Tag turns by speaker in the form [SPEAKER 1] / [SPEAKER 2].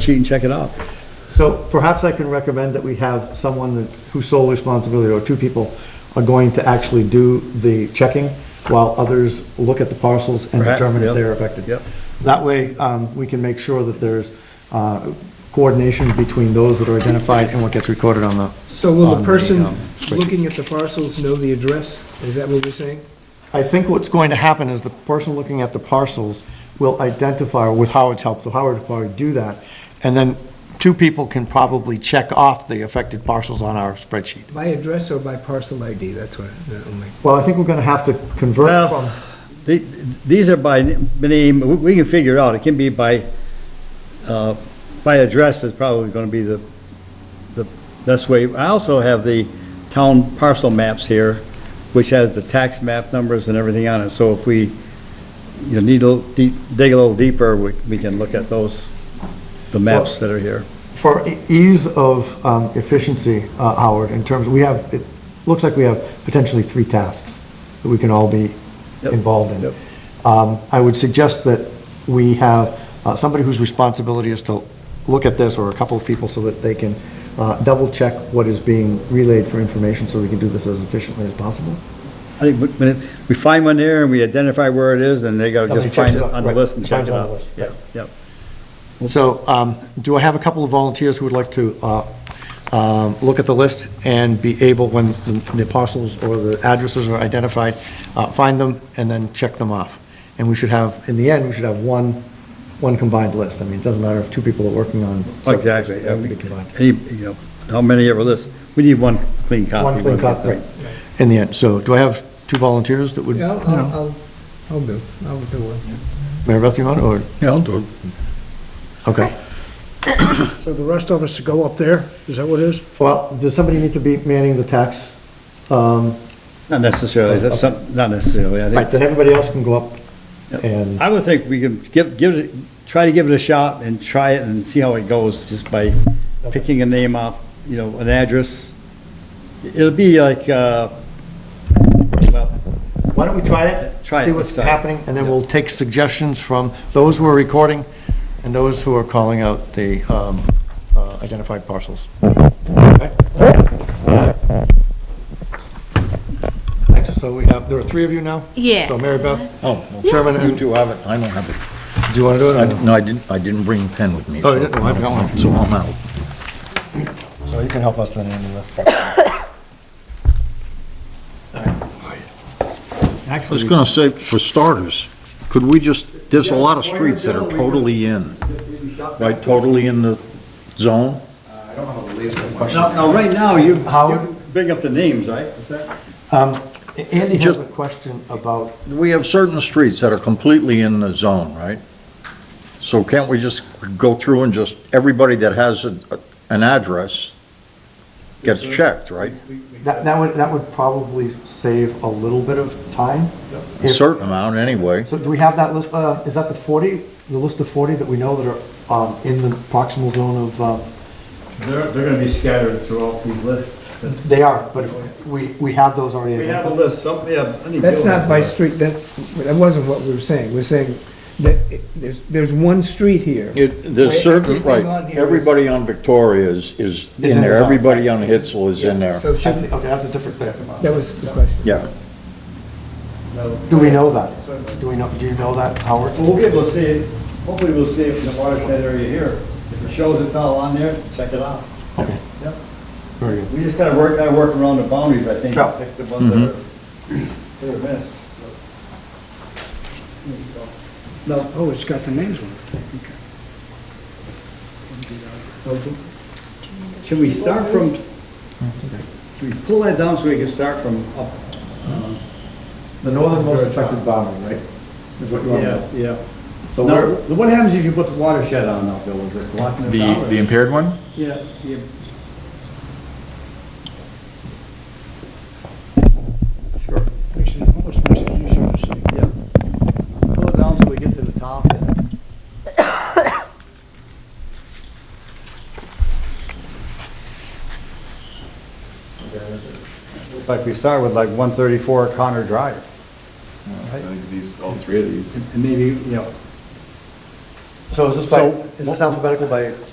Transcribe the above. [SPEAKER 1] sheet and check it out.
[SPEAKER 2] So perhaps I can recommend that we have someone that- whose sole responsibility, or two people, are going to actually do the checking while others look at the parcels and
[SPEAKER 1] Perhaps,
[SPEAKER 2] determine if
[SPEAKER 1] yep,
[SPEAKER 2] they're affected.
[SPEAKER 1] yep.
[SPEAKER 2] That way, um, we can make sure that there's uh, coordination between those that are identified and what gets recorded on the,
[SPEAKER 3] So will
[SPEAKER 2] on
[SPEAKER 3] the
[SPEAKER 2] the,
[SPEAKER 3] person
[SPEAKER 2] um, spreadsheet.
[SPEAKER 3] looking at the parcels know the address? Is that what we're saying?
[SPEAKER 2] I think what's going to happen is the person looking at the parcels will identify with Howard's help, so Howard will probably do that. And then two people can probably check off the affected parcels on our spreadsheet.
[SPEAKER 3] By address or by parcel ID? That's what, oh that only.
[SPEAKER 2] Well, I think we're gonna have to convert
[SPEAKER 1] Well,
[SPEAKER 2] from,
[SPEAKER 1] the- These are by n- name, we- we can figure it out, it can be by, uh, by address is probably going to be the, the best way. I also have the town parcel maps here, which has the tax map numbers and everything on it, so if we, you know, need a, little deep- dig a little deeper, we we can look at those, the maps that are here.
[SPEAKER 2] for e- ease of um, efficiency, uh, Howard, in terms, we have, it looks like we have potentially three tasks that we can all be
[SPEAKER 1] Yep,
[SPEAKER 2] involved in.
[SPEAKER 1] yep.
[SPEAKER 2] Um, I would suggest that we have uh, somebody whose responsibility is to look at this, or a couple of people, so that they can double-check what is being relayed for information, so we can do this as efficiently as possible.
[SPEAKER 1] I think when- when it- we find one there and we identify where it is, then they got to
[SPEAKER 2] Somebody
[SPEAKER 1] just find
[SPEAKER 2] checks
[SPEAKER 1] it
[SPEAKER 2] it out,
[SPEAKER 1] on the
[SPEAKER 2] right,
[SPEAKER 1] list and check
[SPEAKER 2] finds
[SPEAKER 1] it
[SPEAKER 2] it on the
[SPEAKER 1] out.
[SPEAKER 2] list,
[SPEAKER 1] Yeah,
[SPEAKER 2] right.
[SPEAKER 1] yeah.
[SPEAKER 2] So, um, do I have a couple of volunteers who would like to uh, um, look at the list and be able, when the parcels or the addresses are identified, uh, find them and then check them off? And we should have, in the end, we should have one, one combined list. I mean, it doesn't matter if two people are working on.
[SPEAKER 1] Exactly.
[SPEAKER 2] It would be combined.
[SPEAKER 1] Any, you know, how many ever list, we need one clean copy.
[SPEAKER 2] One clean copy, right, in the end. So do I have two volunteers that would,
[SPEAKER 3] Yeah, I'll,
[SPEAKER 2] Mary
[SPEAKER 3] I'll- I'll, I'll do, I'll do one.
[SPEAKER 2] Beth, you want, it, or,
[SPEAKER 4] Yeah, I'll do it.
[SPEAKER 2] okay.
[SPEAKER 5] So the rest of us to go up there, is that what it is?
[SPEAKER 2] Well, does somebody need to be manning the tax? Um,
[SPEAKER 1] Not necessarily, that's some, not necessarily, I
[SPEAKER 2] Right,
[SPEAKER 1] think.
[SPEAKER 2] then everybody else can go up and,
[SPEAKER 1] I would think we can give, give it, try to give it a shot and try it and see how it goes, just by picking a name up, you know, an address. It'll be like, uh, well,
[SPEAKER 2] why don't we try it?
[SPEAKER 1] Try it,
[SPEAKER 2] See what's
[SPEAKER 4] uh,
[SPEAKER 1] let's try it.
[SPEAKER 2] happening, and then we'll take suggestions from those who are recording and those who are calling out the um, uh, identified parcels. Okay. So we have, there are three of you now?
[SPEAKER 6] Yeah.
[SPEAKER 2] So Mary Beth,
[SPEAKER 4] Oh,
[SPEAKER 2] Chairman,
[SPEAKER 4] well, you
[SPEAKER 2] and-
[SPEAKER 4] two have it, I don't have it.
[SPEAKER 2] do you want to do it?
[SPEAKER 4] I
[SPEAKER 2] or
[SPEAKER 4] di- No, I didn't, I didn't bring a pen with me.
[SPEAKER 2] Oh, you
[SPEAKER 4] so-
[SPEAKER 2] didn't? I've got one.
[SPEAKER 4] So I'm out.
[SPEAKER 2] no? So you can help us then, Andy, with.
[SPEAKER 4] I was gonna say, for starters, could we just, there's a lot of streets that are totally in, right, totally in the zone?
[SPEAKER 1] now, now, right now, you,
[SPEAKER 2] Howard?
[SPEAKER 1] you bring up the names, right? Is that?
[SPEAKER 2] Um, Andy has
[SPEAKER 4] Just-
[SPEAKER 2] a question about,
[SPEAKER 4] We have certain streets that are completely in the zone, right? So can't we just go through and just, everybody that has a- an address gets checked, right?
[SPEAKER 2] that that would, that would probably save a little bit of time.
[SPEAKER 4] A
[SPEAKER 2] If-
[SPEAKER 4] certain amount, anyway.
[SPEAKER 2] So do we have that list, uh, is that the 40, the list of 40 that we know that are um, in the proximal zone of, uh,
[SPEAKER 1] They're, they're gonna be scattered throughout these lists.
[SPEAKER 2] they are, but if we, we have those already.
[SPEAKER 1] We have a
[SPEAKER 2] identified.
[SPEAKER 1] list, some, we have. I need
[SPEAKER 3] That's
[SPEAKER 1] Bill.
[SPEAKER 3] not by street, that, that wasn't what we were saying. We're saying that it- there's, there's one street here.
[SPEAKER 4] It,
[SPEAKER 3] Wait,
[SPEAKER 4] there's certain,
[SPEAKER 3] everything
[SPEAKER 4] right,
[SPEAKER 3] on here is-
[SPEAKER 4] everybody on Victoria is, is
[SPEAKER 2] Is in
[SPEAKER 4] in there,
[SPEAKER 2] the zone.
[SPEAKER 4] everybody on Hitzel is in there.
[SPEAKER 3] So
[SPEAKER 2] I see,
[SPEAKER 3] shouldn't,
[SPEAKER 2] Okay, that's a different thing.
[SPEAKER 3] that was the question.
[SPEAKER 4] Yeah,
[SPEAKER 2] Do we know that? Do we know, do you know that, Howard?
[SPEAKER 1] Well, We'll be able to see it, hopefully we'll see it in the watershed area here. If it shows it's all on there, check it out.
[SPEAKER 2] Okay.
[SPEAKER 1] Yep.
[SPEAKER 2] Very good.
[SPEAKER 1] We just gotta work, gotta work around the boundaries, I think,
[SPEAKER 2] Yeah.
[SPEAKER 1] pick the ones that are, that are missed. No,
[SPEAKER 5] Oh, it's got the names on
[SPEAKER 1] should we start from, should we pull that down so we can start from up? um,
[SPEAKER 2] The northernmost affected boundary, right? Is what you want to
[SPEAKER 1] Yeah,
[SPEAKER 2] know?
[SPEAKER 1] yeah.
[SPEAKER 2] So
[SPEAKER 1] Now,
[SPEAKER 2] we're,
[SPEAKER 1] what happens if you put the watershed on now, Bill, is it blocking us
[SPEAKER 7] The,
[SPEAKER 1] out? or-
[SPEAKER 7] the impaired one?
[SPEAKER 1] Yeah, yeah. Sure. Yeah. Pull it down so we get to the top. and- Looks like we start with like 134 Connor Drive.
[SPEAKER 7] I think these, all three of these.
[SPEAKER 1] And maybe, you know,
[SPEAKER 2] so is this by, is this alphabetical by